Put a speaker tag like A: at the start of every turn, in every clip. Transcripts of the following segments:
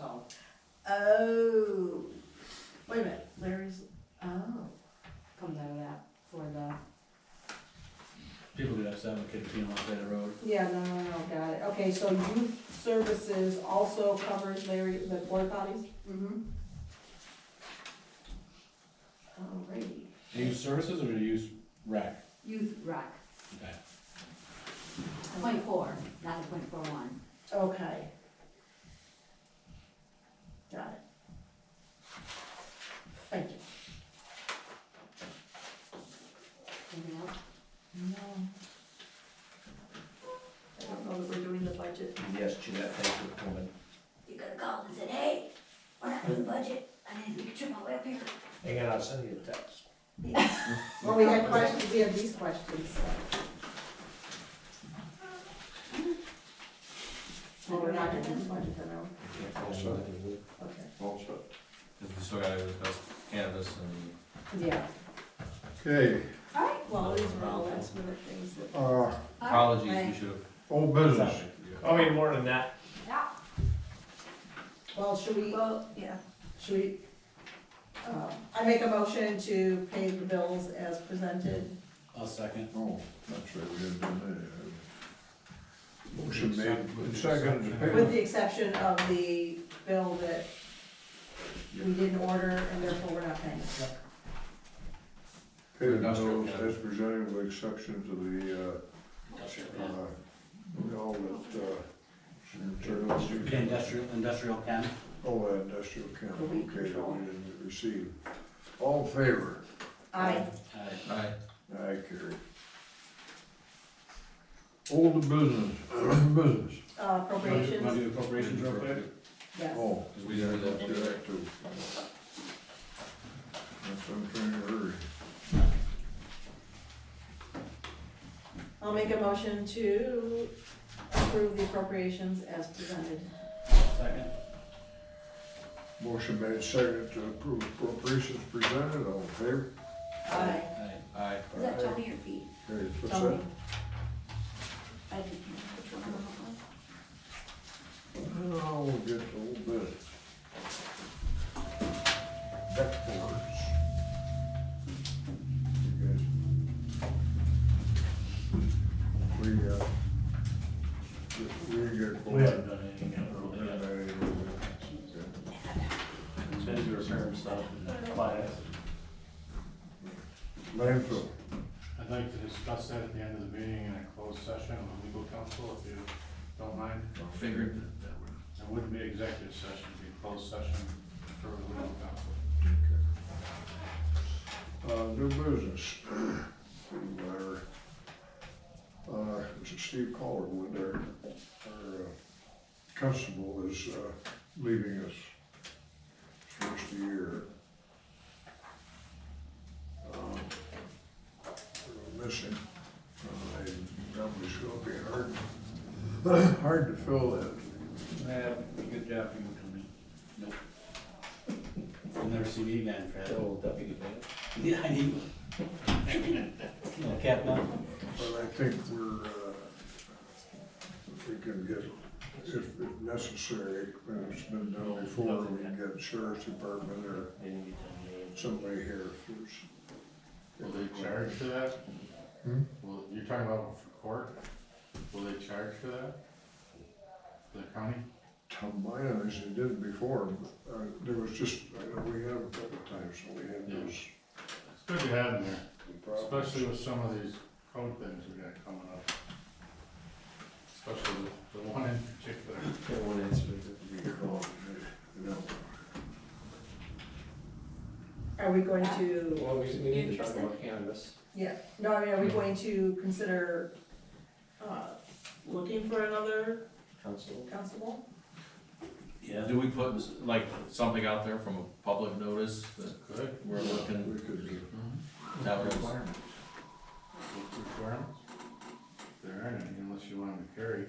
A: Oh, oh, wait a minute, Larry's, oh,
B: comes out of that for the.
C: People get upset when kids pee on the side of the road.
B: Yeah, no, no, no, got it. Okay, so youth services also covers Larry, the porta potties?
A: mm-hmm. Alrighty,
C: Do you use services or do you use rec?
D: Youth rec,
C: Okay.
D: point four, not the point four one.
A: okay. Got it. Thank you.
D: Anything else?
A: No. I don't know that we're doing the budget.
E: Yes, Jeanette, thank you for coming.
D: You could have called and said, hey, we're not doing budget, I need to make sure my way up here.
E: Hang on, I'll send you a text.
B: Well, we had questions, we had these questions. Well, we're not gonna do the budget, then, no? Okay.
F: Oh, Cause we still gotta discuss cannabis and
B: Yeah.
G: Okay,
A: Alright, well, these were all last minute things that.
F: Oh,
G: uh,
F: apologies, we should have.
G: old business.
E: Oh, wait, more than that.
B: Well, should we,
A: Well, yeah.
B: should we,
A: Uh, I make a motion to pay the bills as presented.
C: I'll second.
G: Oh, that's right, we didn't do that. Motion made and seconded to
A: With
G: pay.
A: the exception of the bill that we didn't order and therefore we're not paying.
G: Pay the bills as presented with exception to
C: Industrial,
G: the, uh,
C: yeah.
G: uh, all that, uh, internal.
C: Okay, Industrial, industrial chem.
G: Oh, that industrial
A: The
G: chemical, okay,
A: weed
G: that we
A: control.
G: didn't receive. All in favor?
A: Aye.
C: Aye.
F: Alright.
G: I carry. Old business, business.
A: Uh,
C: Wanna do- Wanna
A: appropriations,
C: do appropriations real quick?
A: yes.
G: Oh,
F: Cause we
G: yeah,
F: didn't
G: I'll
F: really-
G: do that too. That's what I'm trying to hurry.
A: I'll make a motion to approve the appropriations as presented.
C: Second.
G: Motion made second to approve appropriations presented, all in favor?
A: Aye.
C: Aye.
F: Aye.
D: Is that Tony or Pete?
G: Okay, what's
A: Tony.
G: that?
D: I didn't hear which one it was.
G: Oh, we'll get a little bit. Deck boards. You guys. We, uh, we get.
C: We haven't done anything yet. We're looking at-
G: Okay.
C: It's been to repair and stuff and uh, class.
G: Landfill.
H: I'd like to discuss that at the end of the meeting in a closed session with legal counsel, if you don't mind.
F: Figured.
H: It wouldn't be executive session, it'd be closed session for legal counsel.
G: Uh, new business. Whatever. Uh, this is Steve Collarwood, our, our uh, constable is, uh, leaving us first of the year. Um, We're missing, uh, I probably will be hard, hard to fill that.
C: Yeah, good job for you coming. Nope. You'll never see me again, Fred.
E: Oh, deputy man.
C: Yeah, I need one. Little cap on.
G: But I think we're, uh, if we can get, if if necessary, and it's been done before, we can get sheriff's department or
E: Didn't get that name.
G: somebody here who's.
H: Will they charge for that?
G: Hmm?
H: Well, you're talking about for court, will they charge for that? The county?
G: Tom Bynum, as they did before, but, uh, there was just, I know we had a couple times, so we had those
H: It's good to have them there,
G: problems.
H: especially with some of these code things we got coming up. Especially the the one in particular.
E: That one incident that we
G: You know, you know.
A: Are we going to,
E: Well, we, we need to talk about cannabis.
A: yeah, no, I mean, are we going to consider, uh, looking for another
E: Council.
A: constable?
C: Yeah.
F: Do we put like something out there from a public notice that
H: Good,
F: we're looking,
G: We could get
H: Mm-hmm.
F: that was,
H: with requirements? There aren't any unless you want them to carry.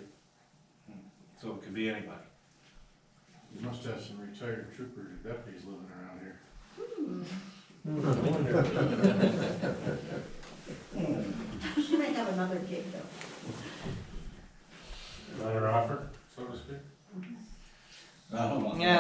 C: So it could be anybody.
H: You must have some retired troopers or deputies living around here.
A: She might have another gig though.
H: Letter offer? So to speak.
C: I don't want.
F: Oh,
A: Yeah,